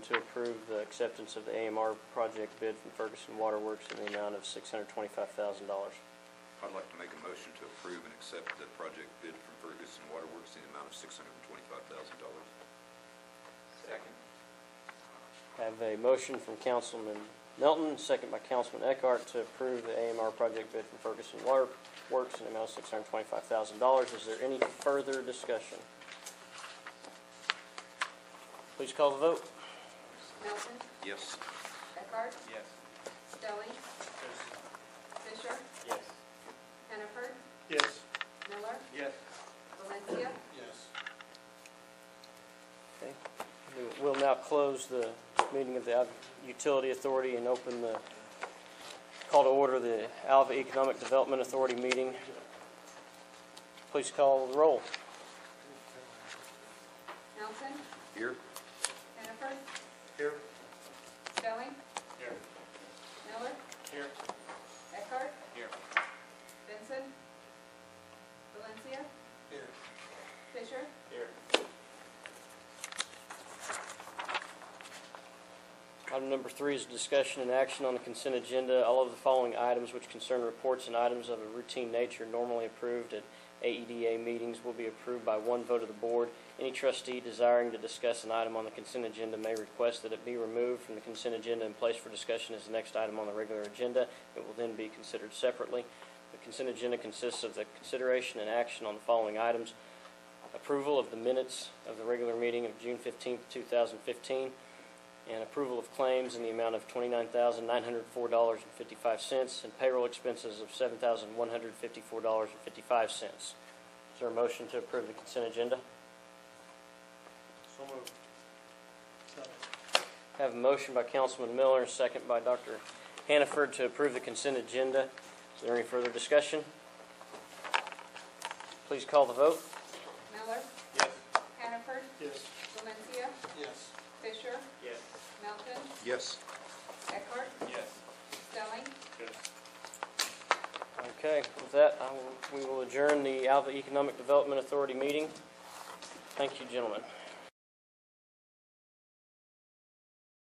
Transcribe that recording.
approve the acceptance of the AMR project bid from Ferguson Waterworks in the amount of $625,000. I'd like to make a motion to approve and accept the project bid from Ferguson Waterworks in the amount of $625,000. Second. Have a motion from Councilman Melton, second by Councilman Eckhart, to approve the AMR project bid from Ferguson Waterworks in the amount of $625,000. Is there any further discussion? Please call the vote. Melton, Yes. Eckhart, Yes. Stelling, Fisher, Yes. Hannaford, Yes. Miller, Yes. Valencia, Yes. Okay. We- We'll now close the meeting of the Alva Utility Authority and open the, call to order the Alva Economic Development Authority meeting. Please call the roll. Melton, Here? Hannaford, Here. Stelling, Here. Miller, Here. Eckhart, Here. Benson, Valencia, Here. Fisher, Here. Item number three is discussion and action on the consent agenda. All of the following items which concern reports and items of a routine nature normally approved at AEDA meetings will be approved by one vote of the board. Any trustee desiring to discuss an item on the consent agenda may request that it be removed from the consent agenda and placed for discussion as the next item on the regular agenda. It will then be considered separately. The consent agenda consists of the consideration and action on the following items. Approval of the minutes of the regular meeting of June 15, 2015 and approval of claims in the amount of twenty-nine thousand nine hundred four dollars and fifty-five cents and payroll expenses of seven thousand one hundred fifty-four dollars and fifty-five cents. Is there a motion to approve the consent agenda? So moved. Second. Have a motion by Councilman Miller, a second by Dr. Hannaford to approve the consent agenda. Is there any further discussion? Please call the vote. Miller, Yes. Hannaford, Yes. Valencia, Yes. Fisher, Yes. Melton, Yes. Eckhart, Yes. Stelling, Yes. Okay, with that, I will, we will adjourn the Alva Economic Development Authority meeting. Thank you, gentlemen.